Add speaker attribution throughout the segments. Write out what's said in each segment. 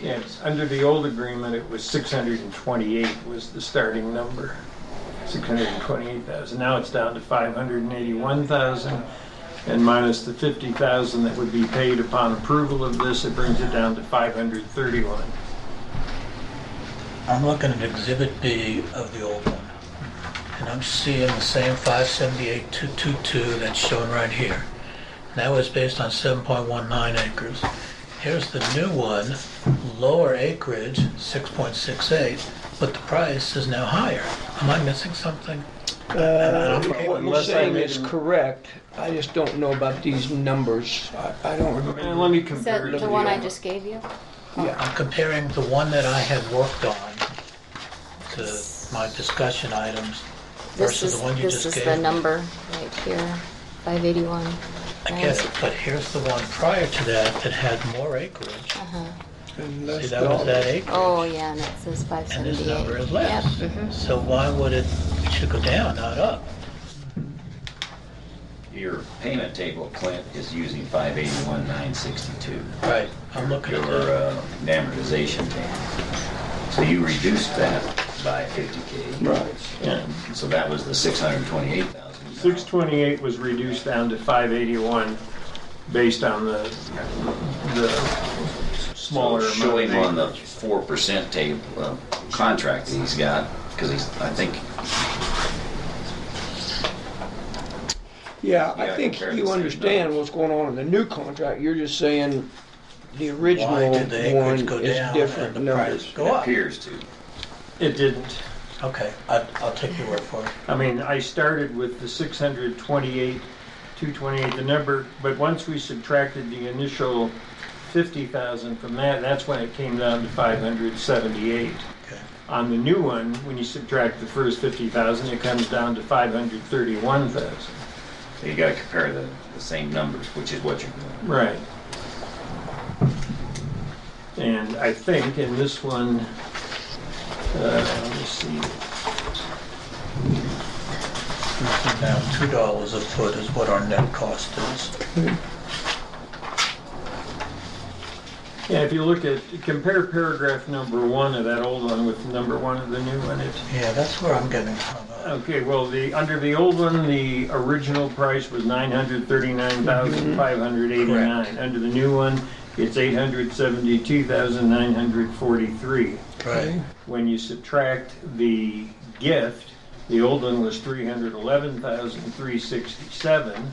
Speaker 1: Yes, under the old agreement, it was 628 was the starting number, 628,000. Now it's down to 581,000, and minus the 50,000 that would be paid upon approval of this, it brings it down to 531.
Speaker 2: I'm looking at Exhibit B of the old one, and I'm seeing the same 578,222 that's shown right here. And That was based on 7.19 acres. Here's the new one, lower acreage, 6.68, but the price is now higher. Am I missing something?
Speaker 3: What you're
Speaker 1: Unless I
Speaker 3: saying
Speaker 1: made a-
Speaker 3: is correct, I just don't know about these numbers. I I don't remember.
Speaker 1: And let me
Speaker 4: Is
Speaker 1: compare it to
Speaker 4: that the uh, one I just gave you?
Speaker 3: Yeah,
Speaker 2: I'm comparing the one that I had worked on to my discussion items
Speaker 4: This
Speaker 2: versus
Speaker 4: is,
Speaker 2: the one you
Speaker 4: this
Speaker 2: just
Speaker 4: is
Speaker 2: gave.
Speaker 4: the number right here, five eighty-one.
Speaker 2: I get it, but here's the one prior to that that had more acreage.
Speaker 3: and
Speaker 2: See,
Speaker 3: that's
Speaker 2: that was
Speaker 3: all.
Speaker 2: that acreage,
Speaker 4: Uh-huh. Oh, yeah, and it says five
Speaker 2: and
Speaker 4: seventy-eight.
Speaker 2: this number is less. So why would it, it should go down, not up?
Speaker 5: Your payment table, Clint, is using five eighty-one, nine sixty-two.
Speaker 2: Right. I'm looking
Speaker 5: Your
Speaker 2: at the,
Speaker 5: uh, amortization table. So you reduced that by fifty K.
Speaker 3: Right.
Speaker 1: Yeah.
Speaker 5: So that was the six hundred and twenty-eight thousand.
Speaker 1: 628 was reduced down to 581 based on the, the smaller amount. of
Speaker 5: Showing on the
Speaker 1: acreage.
Speaker 5: four percent table, uh, contract that he's got, because he's, I think,
Speaker 3: Yeah,
Speaker 5: Yeah,
Speaker 3: I think
Speaker 5: compared to
Speaker 3: you
Speaker 5: the same
Speaker 3: understand
Speaker 5: numbers.
Speaker 3: what's going on in the new contract. You're just saying the
Speaker 2: why
Speaker 3: original
Speaker 2: did the acreage
Speaker 3: one
Speaker 2: go
Speaker 3: is
Speaker 2: down and
Speaker 3: different
Speaker 2: the price
Speaker 3: numbers.
Speaker 2: go
Speaker 5: it
Speaker 2: up?
Speaker 5: appears to.
Speaker 1: It didn't.
Speaker 2: Okay, I, I'll take your word for it.
Speaker 1: I mean, I started with the 628, 228, the number, but once we subtracted the initial 50,000 from that, that's when it came down to 578.
Speaker 2: Okay.
Speaker 1: On the new one, when you subtract the first 50,000, it comes down to 531,000.
Speaker 5: You gotta compare the, the same numbers, which is what you're doing.
Speaker 1: Right. And I think in this one, uh, let me see,
Speaker 2: Now, two dollars a foot is what our net cost is.
Speaker 1: yeah, if you look at, compare paragraph number one of that old one with number one of the new one, it's
Speaker 2: Yeah, that's where I'm getting hung up.
Speaker 1: Okay, well, the, under the old one, the original price was nine hundred thirty-nine thousand five hundred eighty-nine. Under the new one, it's eight hundred seventy-two thousand nine hundred forty-three.
Speaker 2: Right.
Speaker 1: When you subtract the gift, the old one was three hundred eleven thousand three sixty-seven.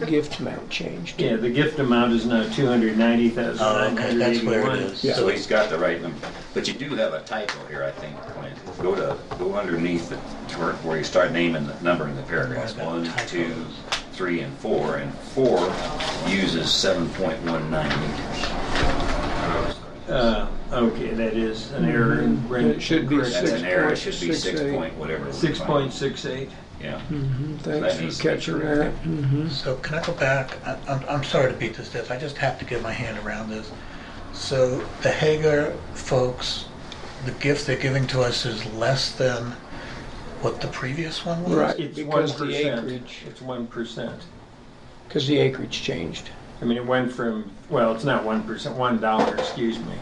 Speaker 3: The gift amount changed.
Speaker 1: Yeah, the gift amount is now two hundred ninety thousand
Speaker 2: Oh,
Speaker 1: nine
Speaker 2: okay,
Speaker 1: hundred
Speaker 2: that's where
Speaker 1: eighty-one.
Speaker 2: it is.
Speaker 5: So he's got the right number, but you do have a typo here, I think, Clint. Go to, go underneath the, where- where you start naming the number in the paragraphs, one, two, three, and four, and four uses seven point one nine meters.
Speaker 1: Uh, okay, that is an error in.
Speaker 3: Mm-hmm. It should be
Speaker 5: That's
Speaker 1: Correct.
Speaker 5: an error, it should be six point whatever.
Speaker 1: Six point six eight.
Speaker 5: Yeah.
Speaker 3: Thanks
Speaker 5: That needs
Speaker 3: for
Speaker 5: to be
Speaker 3: catching that.
Speaker 5: corrected.
Speaker 2: So can I go back? I- I'm, I'm sorry to beat this death, I just have to get my hand around this. So the Hager folks, the gift they're giving to us is less than what the previous one was?
Speaker 3: Right.
Speaker 1: It's one
Speaker 3: Because the
Speaker 1: percent.
Speaker 3: acreage-
Speaker 1: It's one percent.
Speaker 3: Because the acreage changed.
Speaker 1: I mean, it went from, well, it's not one percent, one dollar, excuse me,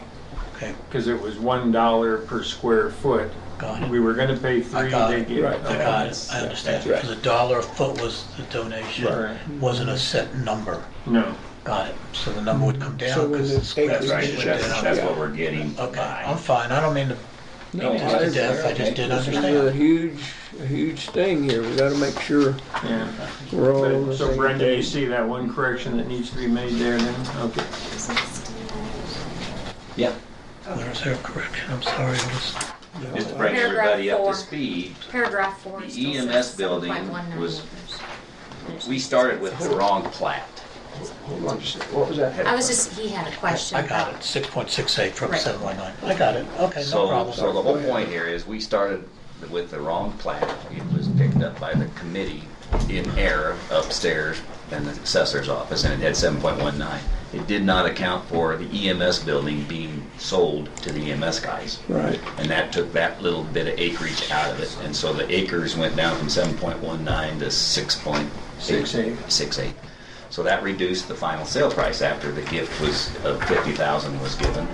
Speaker 2: Okay,
Speaker 1: because it was one dollar per square foot.
Speaker 2: got it.
Speaker 1: We were gonna pay three,
Speaker 2: got
Speaker 1: they
Speaker 2: it.
Speaker 1: gave.
Speaker 3: Right.
Speaker 2: I got it, I understand,
Speaker 3: That's right.
Speaker 2: because a dollar a foot was the donation,
Speaker 1: Right.
Speaker 2: wasn't a set number.
Speaker 1: No,
Speaker 2: Got it, so the number would come
Speaker 3: So
Speaker 2: down
Speaker 3: when
Speaker 2: because
Speaker 3: the
Speaker 2: the square
Speaker 5: That's right,
Speaker 2: footage
Speaker 1: Mm-hmm.
Speaker 3: acreage
Speaker 2: went
Speaker 5: that's,
Speaker 2: down.
Speaker 5: that's what we're getting
Speaker 2: Okay, I'm
Speaker 5: by.
Speaker 2: fine, I don't mean to
Speaker 3: No,
Speaker 2: beat
Speaker 3: I-
Speaker 2: this to death, I just didn't
Speaker 3: This is a
Speaker 2: understand.
Speaker 3: huge, a huge thing here. We gotta make sure
Speaker 1: yeah.
Speaker 3: we're all on
Speaker 1: But-
Speaker 3: the
Speaker 1: So
Speaker 3: same
Speaker 1: Brenda, you
Speaker 3: page.
Speaker 1: see that one correction that needs to be made there then? Okay.
Speaker 5: Yeah,
Speaker 2: Where's her correction, I'm sorry, I was,
Speaker 5: just to bring
Speaker 4: Paragraph
Speaker 5: everybody up
Speaker 4: four.
Speaker 5: to speed,
Speaker 4: Paragraph four.
Speaker 5: The
Speaker 4: still says
Speaker 5: EMS building
Speaker 4: 7.19
Speaker 5: was-
Speaker 4: acres.
Speaker 5: we started with the wrong plat.
Speaker 3: Hold on just a second. What was that?
Speaker 4: I was just, he had a question.
Speaker 2: I got
Speaker 4: about-
Speaker 2: it, six point six eight from
Speaker 4: Right.
Speaker 2: seven point nine. I got it, okay, no
Speaker 5: So,
Speaker 2: problem.
Speaker 5: so the whole point here is we started with the wrong plat. It was picked up by the committee in error upstairs in the assessor's office and it had seven point one nine. It did not account for the EMS building being sold to the EMS guys.
Speaker 3: Right.
Speaker 5: And that took that little bit of acreage out of it. And so the acres went down from seven point one nine to six point
Speaker 1: Six eight.
Speaker 5: Six eight. So that reduced the final sale price after the gift was, of fifty thousand was given.